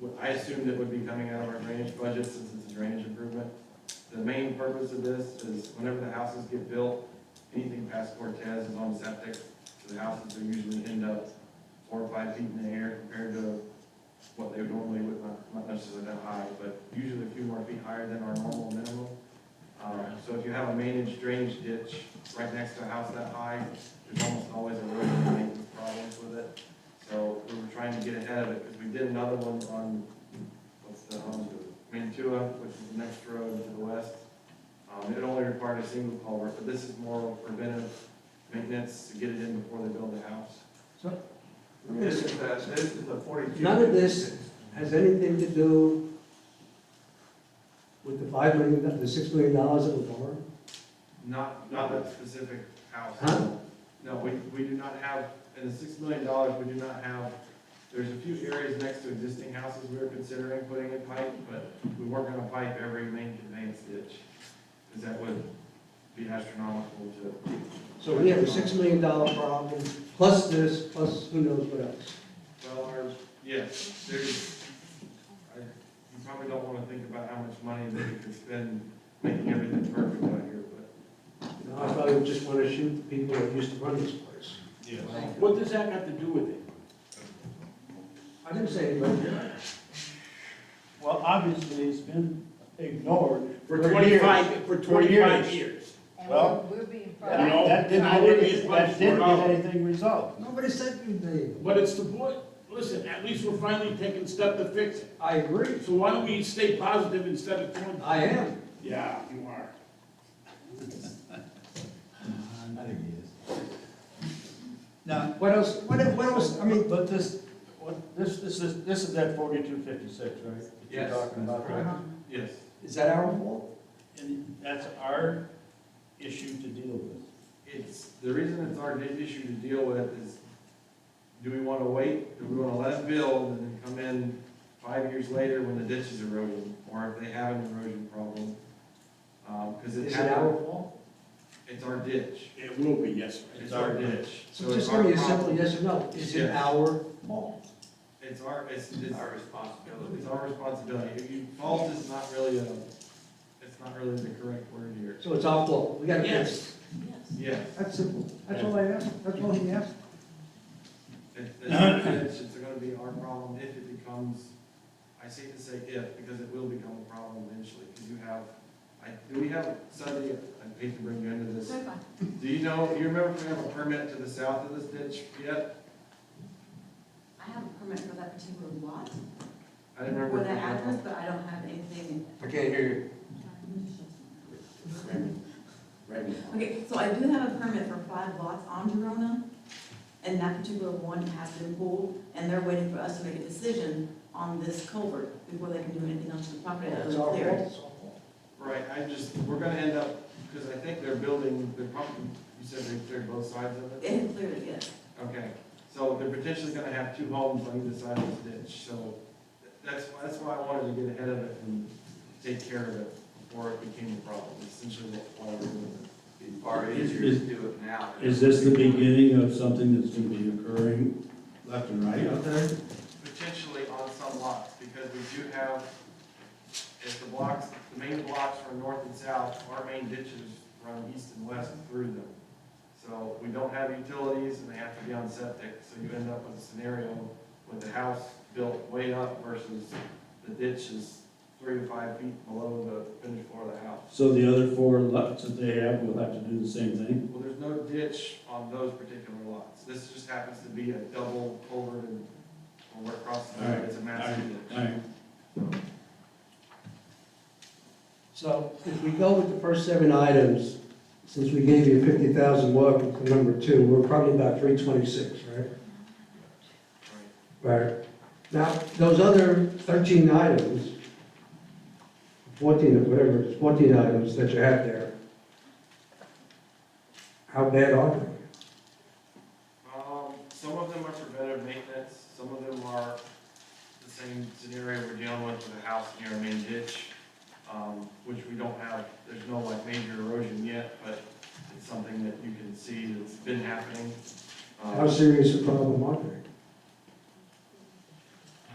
Well, I assumed it would be coming out of our drainage budget since it's a drainage improvement. The main purpose of this is whenever the houses get built, anything past Cortez is on septic. So the houses are usually end up four or five feet in the air compared to what they would normally would, not, not necessarily that high, but usually a few more feet higher than our normal minimum. Um, so if you have a managed drainage ditch right next to a house that high, there's almost always erosion and maintenance problems with it. So we were trying to get ahead of it, because we did another one on, what's the, um, Mantua, which is the next road to the west. Um, it only required a single culvert, but this is more preventive maintenance to get it in before they build the house. So- This is, the- this is the forty-two. None of this has anything to do with the five million, the six million dollars that were borrowed? Not, not that specific house. Huh? No, we, we do not have, in the six million dollars, we do not have, there's a few areas next to existing houses we were considering putting in pipe, but we weren't gonna pipe every main conveyance ditch, because that would be astronomical to. So we have a six million dollar problem, plus this, plus who knows what else. Well, our, yes, there's, I, you probably don't wanna think about how much money that we could spend making everything perfect out here, but. You know, I probably would just wanna shoot the people that used to run this place. Yes. What does that got to do with it? I didn't say anybody. Well, obviously, it's been ignored For twenty-five, for twenty-five years. And Well, we're, we're being you proud. know, That didn't, I get wouldn't any- be as much that didn't for get it. anything resolved. Nobody said anything. But it's the boy, listen, at least we're finally taking step to fix it. I agree. So why don't we stay positive instead of twenty? I am. Yeah, you are. I think he is. Now, What else, what, what else, I mean, but this, what, this, this is, this is that forty-two fifty-six, right? that You're Yes, talking about, that's right? Yes, is that our fault? And that's our issue to deal with. it's, the reason it's our big issue to deal with is, do we wanna wait, do we wanna let it build and then come in five years later when the ditch is eroding, or if they have an erosion problem? Um, cause it Is it our happened, fault? it's our ditch, It will be, yes, sir. it's our ditch. So it's just our give me a problem. simple yes or no. Is it Yes. our fault? It's our, it's, it's It's our, our responsibility. it's our responsibility, if you, fault is not really a, it's not really the correct word here. So it's our fault. We gotta fix it. Yes, Yes, That's simple. That's all I asked. That's all he asked. It- It's, it's gonna be our problem if it becomes, I hate to say if, because it will become a problem eventually, because you have, I, do we have, Sunday, I hate to bring you into this. Do you know, you remember if we have a permit to the south of this ditch yet? I have a permit for that particular lot, I didn't remember. for if that we had address, one. but I don't have anything. I can't hear you. Okay, so I do have a permit for five lots on Verona, and that particular one has been pulled, and they're waiting for us to make a decision on this culvert before they can do anything else to the property other It's than our clear it. fault. Right, I just, we're gonna end up, because I think they're building, they're probably, you said they cleared both sides of it? It had cleared it, yes. Okay, so they're potentially gonna have two homes on either side of this ditch, so that's, that's why I wanted to get ahead of it and take care of it before it became a problem, essentially what I was doing. It's far easier to do it now. Is this the beginning of something that's gonna be occurring left and right out there? Potentially on some lots, because we do have, if the blocks, the main blocks run north and south, our main ditches run east and west through them. So we don't have utilities and they have to be on septic, so you end up with a scenario with the house built way up versus the ditch is three to five feet below the finished floor of the house. So the other four lots that they have will have to do the same thing? Well, there's no ditch on those particular lots. This just happens to be a double culvert and, or we're crossing, All right, it's a massive ditch. Alright, So if we go with the first seven items, since we gave you fifty thousand welcome to number two, we're probably about three twenty-six, right? Right. Now, those other thirteen items, fourteen, or whatever, it's fourteen items that you have there, how bad are they? Um, some of them are preventive maintenance, some of them are the same scenario we're dealing with with a house near a main ditch, um, which we don't have, there's no like major erosion yet, but it's something that you can see that's been happening. Um, How serious a problem are they?